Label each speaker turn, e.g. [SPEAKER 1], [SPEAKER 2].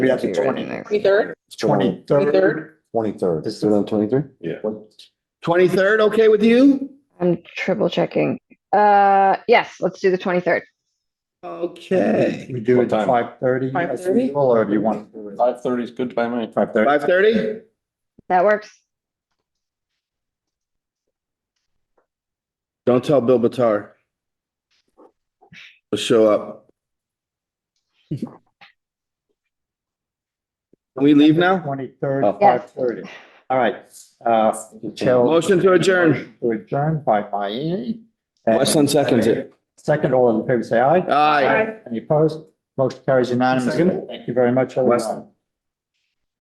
[SPEAKER 1] We have the
[SPEAKER 2] Be right in
[SPEAKER 1] 20.
[SPEAKER 2] there.
[SPEAKER 3] Twenty-third,
[SPEAKER 1] Twenty-third.
[SPEAKER 3] Twenty-third.
[SPEAKER 4] Twenty-third.
[SPEAKER 1] This is-
[SPEAKER 4] Do it on twenty-three?
[SPEAKER 1] Twenty-third, okay with you?
[SPEAKER 2] I'm triple checking. Uh, yes, let's do the twenty-third.
[SPEAKER 1] Okay.
[SPEAKER 5] We do
[SPEAKER 4] What
[SPEAKER 5] it
[SPEAKER 4] time?
[SPEAKER 5] five thirty.
[SPEAKER 3] 5:30?
[SPEAKER 5] Or do you want?
[SPEAKER 4] Five thirty is good by me.
[SPEAKER 5] Five thirty.
[SPEAKER 1] Five thirty?
[SPEAKER 2] That works.
[SPEAKER 1] Don't tell Bill Batar. He'll show up. Can we leave now?
[SPEAKER 5] Twenty-third,
[SPEAKER 2] Yes.
[SPEAKER 5] five thirty. All right. Uh, Chair-
[SPEAKER 1] Motion to adjourn.
[SPEAKER 5] To adjourn by Mayne.
[SPEAKER 1] Westlin seconds it.
[SPEAKER 5] Second, all in favor, say aye.
[SPEAKER 1] Aye.
[SPEAKER 5] Any opposed? Motion carries unanimously. Thank you very much, everyone.